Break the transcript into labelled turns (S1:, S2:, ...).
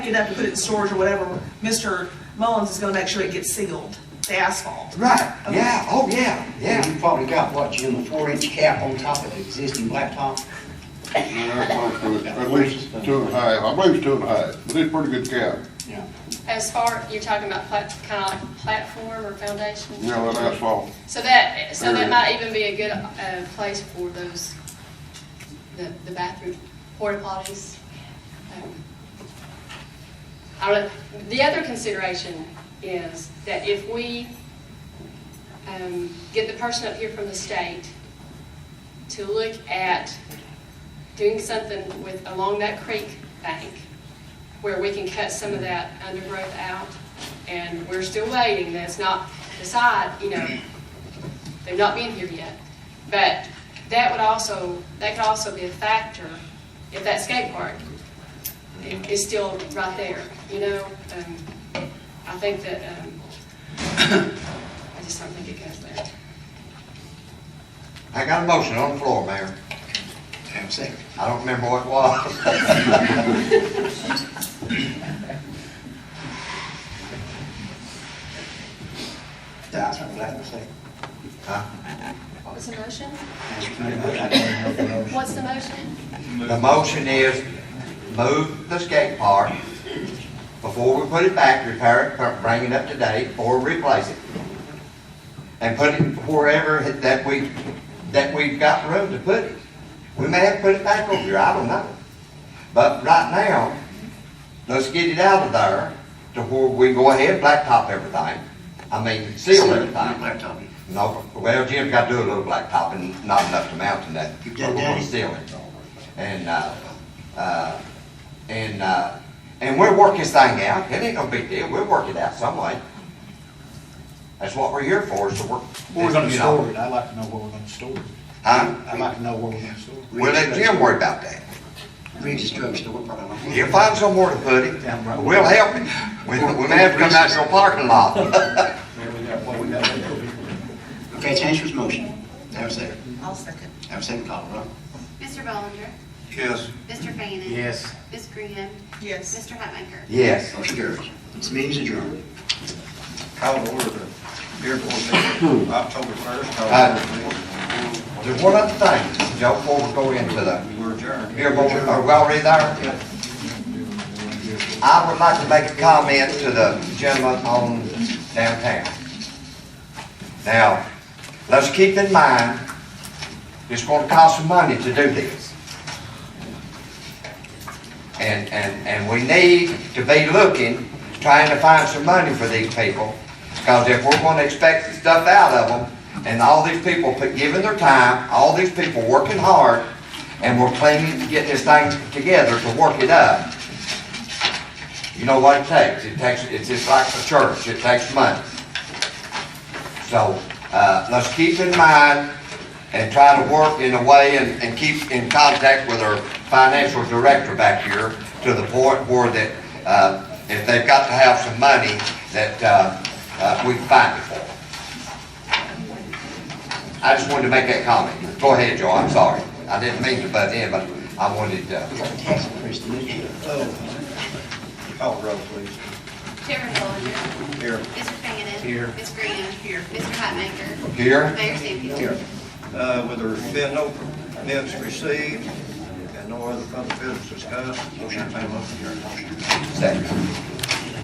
S1: you'd have to put it in storage or whatever, Mr. Mullins is gonna make sure it gets sealed, the asphalt.
S2: Right,
S1: Okay.
S2: yeah, oh, yeah,
S3: Yeah,
S2: yeah.
S3: you probably got, what, Jim, a four-inch cap on top of the existing blacktop?
S4: At least two and a half, I believe it's two and a half, but it's pretty good cap.
S3: Yeah.
S5: As far, you're talking about plat, kind of like platform or foundation?
S4: You know, that asphalt,
S5: So that, so
S4: Area.
S5: that might even be a good, uh, place for those, the, the bathroom, porta potties. Um, I don't, know. the other consideration is that if we, um, get the person up here from the state to look at doing something with, along that creek bank, where we can cut some of that undergrowth out, and we're still waiting, that's not decided, you know, they've not been here yet. But that would also, that could also be a factor if that skate park i- is still right there, you know? Um, I think that, um, I just don't think it goes there.
S2: I got a motion on the floor, Mayor.
S3: Have a second.
S2: I don't remember what it was.
S3: That's what I'm glad to say.
S2: Huh?
S5: What was the motion?
S3: That's what I'm glad to say.
S5: What's the motion?
S2: The motion is move the skate park before we put it back, repair it, bring it up to date, or replace it. And put it wherever that we, that we've got room to put it. We may have to put it back over here, I don't know. But right now, let's get it out of there to where we go ahead, blacktop everything. I mean, seal
S3: Not
S2: everything.
S3: blacktop.
S2: No, well, Jim's got to do a little blacktop and not enough to mount in that.
S3: You did
S2: We're gonna
S3: that?
S2: seal it. And, uh, uh, and, uh, and we'll work this thing out. It ain't no big deal. We'll work it out some way. That's what we're here for, is to work.
S6: Where we're gonna
S2: you know.
S6: store it, I'd like to know where we're gonna store it.
S2: Huh?
S6: I'd like to know where we're gonna store it.
S2: We'll let Jim worry about that.
S3: Regis Drug Store, probably.
S2: He'll find somewhere to put it.
S6: Down right.
S2: We'll help him. We, we may have to come out to your parking lot.
S6: Where we got, what we got.
S3: Okay, change his motion. Have a second.
S1: I'll second.
S3: Have a second call, Rob.
S7: Mr. Bollinger,
S4: yes.
S7: Mr. Fanning.
S6: Yes.
S7: Ms. Graham.
S1: Yes.
S7: Mr. Hatmaker.
S2: Yes.
S3: Motion carries. This meeting's adjourned.
S8: Call to order the Dearborn meeting, October 1st. call to
S2: There's one other thing, Joe, before we go into the
S8: order. We're adjourned.
S2: Here, boy, are we already there? I would like to make a comment to the gentleman on downtown. Now, let's keep in mind, it's gonna cost some money to do this. And, and, and we need to be looking, trying to find some money for these people. Because if we're gonna expect stuff out of them, and all these people put- giving their time, all these people working hard, and we're cleaning, getting this thing together to work it up, you know what it takes? It takes, it's just like the church, it takes money. So, uh, let's keep in mind and try to work in a way and, and keep in contact with our financial director back here to the point where that, uh, if they've got to have some money, that, uh, uh, we can find it for them. I just wanted to make that comment. Go ahead, Joe, I'm sorry. I didn't mean to butt in, but I wanted to. uh,
S3: We got a tax increase to this year.
S6: Oh.
S8: Call the roll, please.
S7: Chairman Bollinger,
S8: Here.
S7: Mr. Fanning.
S6: Here.
S7: Ms. Graham. Here. Mr. Hatmaker.
S2: Here?
S7: Mayor Sampier.
S8: Here. Uh, With there being no minutes received and no other public business discussed, motion to table.
S2: Second.